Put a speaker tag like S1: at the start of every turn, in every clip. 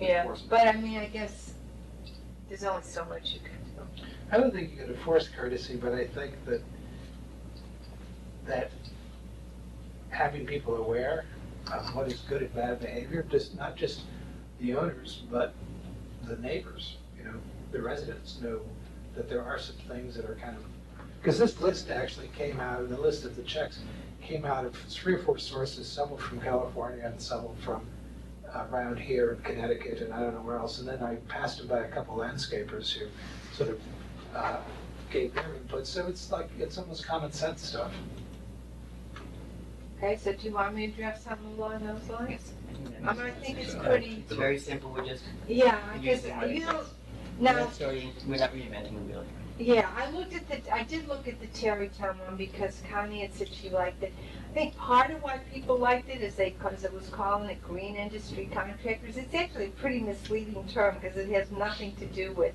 S1: Yeah,
S2: enforcement.
S1: but I mean, I guess there's only so much you can do.
S3: I don't think you can enforce courtesy, but I think that, that having people aware of what is good and bad behavior, just, not just the owners, but the neighbors, you know, the residents know that there are some things that are kind of, because this list actually came out, the list of the checks came out of three or four sources, some were from California and some were from around here in Connecticut and I don't know where else. And then I passed them by a couple landscapers who sort of uh, gave their input. So it's like, it's almost common sense stuff.
S1: Okay, so do you want me to draft something along those lines? I mean, Um, I think it's
S4: Yeah.
S1: pretty,
S4: It's very simple, we're just
S1: yeah, I guess,
S4: using what it
S1: you know,
S4: says. We're
S1: now,
S4: not starting, we're not reinventing the wheel.
S1: Yeah, I looked at the, I did look at the Terrytown one because Connie had said she liked it. I think part of why people liked it is they, because it was calling it green industry contractors. It's actually a pretty misleading term because it has nothing to do with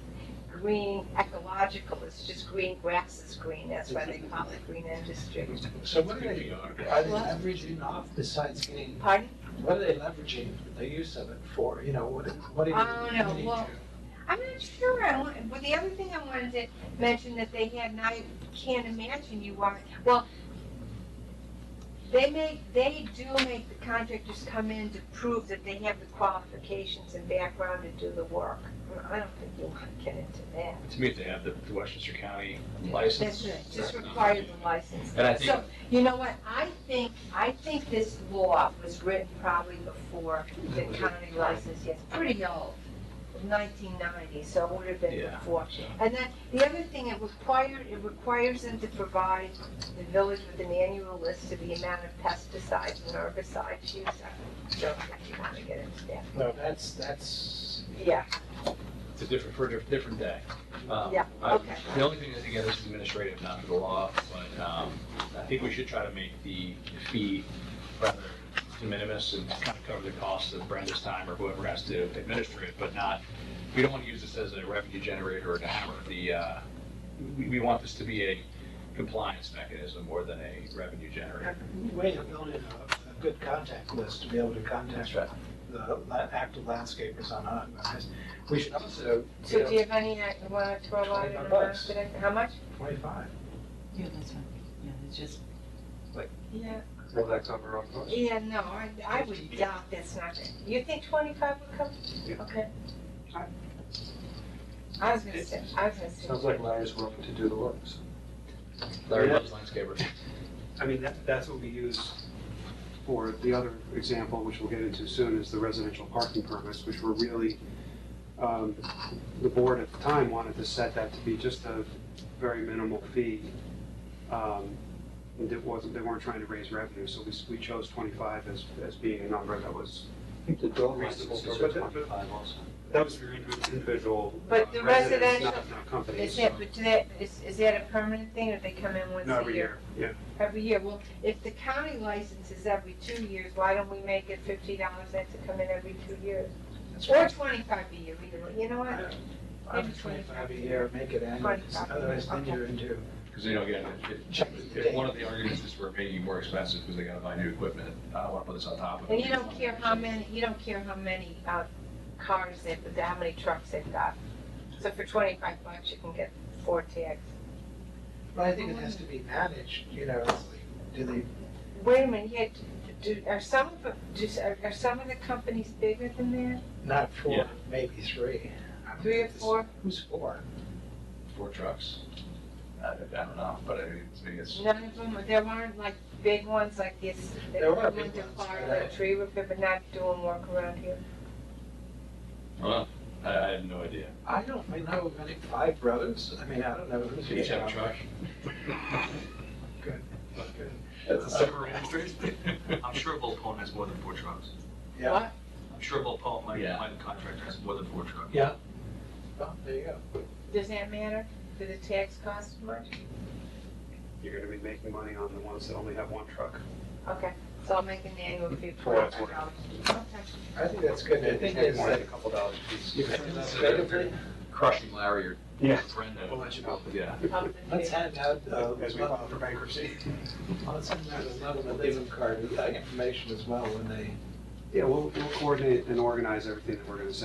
S1: green ecological. It's just green grass is green. That's why they call it green industry.
S3: So what are they, are they leveraging off besides getting,
S1: Pardon?
S3: what are they leveraging the use of it for? You know, what, what are you?
S1: I don't know.
S3: what do you
S1: Well,
S3: do?
S1: I'm not sure. I want, well, the other thing I wanted to mention that they had, and I can't imagine you are, well, they make, they do make the contractors come in to prove that they have the qualifications and background to do the work. I don't think you want to get into that.
S5: To me, if they have the the Westchester County
S1: That's
S5: license.
S1: right, just require the license.
S5: And I think,
S1: So, you know what, I think, I think this law was written probably before the county license, yes, pretty old, nineteen ninety, so it would have been
S5: Yeah.
S1: before. And then, the other thing, it required, it requires them to provide the village with an annual list of the amount of pesticides and herbicides used. I don't think you wanna get into that.
S3: No, that's, that's,
S1: Yeah,
S5: it's a different, for a diff- different day. Um,
S1: Yeah,
S5: I-
S1: okay.
S5: The only thing that, again, this is administrative, not the law, but um, I think we should try to make the fee rather de minimis and kind of cover the cost of Brenda's time or whoever has to administer it, but not, we don't want to use this as a revenue generator or a hammer. The, uh, we, we want this to be a compliance mechanism more than a revenue generator.
S3: way of building a, a good contact list to be able to contact
S5: right.
S3: the la- active landscapers on, on this. We should also, you
S1: so do you
S3: know,
S1: have any, uh, you wanna throw out an
S3: 25
S1: amount
S3: bucks.
S1: today, how much?
S3: twenty-five.
S4: Yeah, that's fine. Yeah, it's just,
S1: Yeah,
S6: Will that cover our costs?
S1: Yeah, no, I, I would doubt that's not it. You think twenty-five would come?
S6: Yeah.
S1: Okay. I was gonna say, I was gonna say.
S6: Sounds like Larry's willing to do the work, so.
S5: Larry loves landscapers.
S6: I mean, that, that's what we use for the other example, which we'll get into soon, is the residential parking permits, which were really, um, the board at the time wanted to set that to be just a very minimal fee. Um, and it wasn't, they weren't trying to raise revenue, so we, s- we chose twenty-five as, as being a number that was,
S4: I think the dog
S6: Reasonable
S4: license is
S6: purpose.
S4: twenty-five also.
S6: that was for individual. uh,
S1: But the
S6: residents,
S1: residential-
S6: Not, not companies.
S1: Is that, but do that, is, is that a permanent thing or they come in once
S6: No,
S1: a
S6: every
S1: year?
S6: year, yeah.
S1: Every year, well, if the county license is every two years, why don't we make it fifty dollars that to come in every two years? Or twenty-five a year, either way, you know what?
S3: Up to twenty-five a year, make it annual, otherwise then you're into
S5: Because, you know, again, if- if, if one of the arguments is we're making it more expensive because they gotta buy new equipment, uh, I don't wanna put this on top of it.
S1: And you don't care how many, you don't care how many, uh, cars they've, how many trucks they've got. So for twenty-five bucks, you can get four tags.
S3: But I think it has to be managed, you know, it's like, do they,
S1: Wait a minute, yeah, do, are some of, the- do, are- are some of the companies bigger than that?
S3: not four,
S5: Yeah.
S3: maybe three.
S1: Three or four?
S3: Who's four?
S5: Four trucks. I, I don't know, but I mean, it's- it's,
S1: None of them, there weren't like big ones like this, that
S3: There were
S1: went
S3: big
S1: to
S3: ones,
S1: fire,
S3: but I-
S1: like tree repair, but not doing work around here.
S5: well, I, I have no idea.
S3: I don't know of any, five brothers, I mean, I don't know who's.
S5: Each have a truck.
S3: Good. Good.
S5: That's
S6: a separate industry.
S7: I'm sure Volpone has more than four trucks.
S3: Yeah,
S7: I'm sure Volpone, my,
S5: Yeah.
S7: my contractor, has more than four trucks.
S3: well, there you go.
S1: Does that matter? Do the tax cost much?
S6: You're gonna be making money on the ones that only have one truck.
S1: Okay, so I'll make an annual fee for
S6: For what it's
S1: $25.
S6: worth.
S1: Okay.
S3: I think that's good, I think
S6: Maybe
S3: it's
S6: more than
S3: like,
S6: a couple dollars a piece.
S5: If it's administratively crushing Larry or
S6: Yeah.
S5: Brenda.
S6: We'll let you know.
S5: Yeah.
S1: Up the
S3: let's
S1: fee.
S3: hand out, uh,
S6: As we file for bankruptcy.
S3: let's hand out a level of living card, with that information as well when they.
S6: Yeah, we'll, we'll coordinate and organize everything that we're gonna send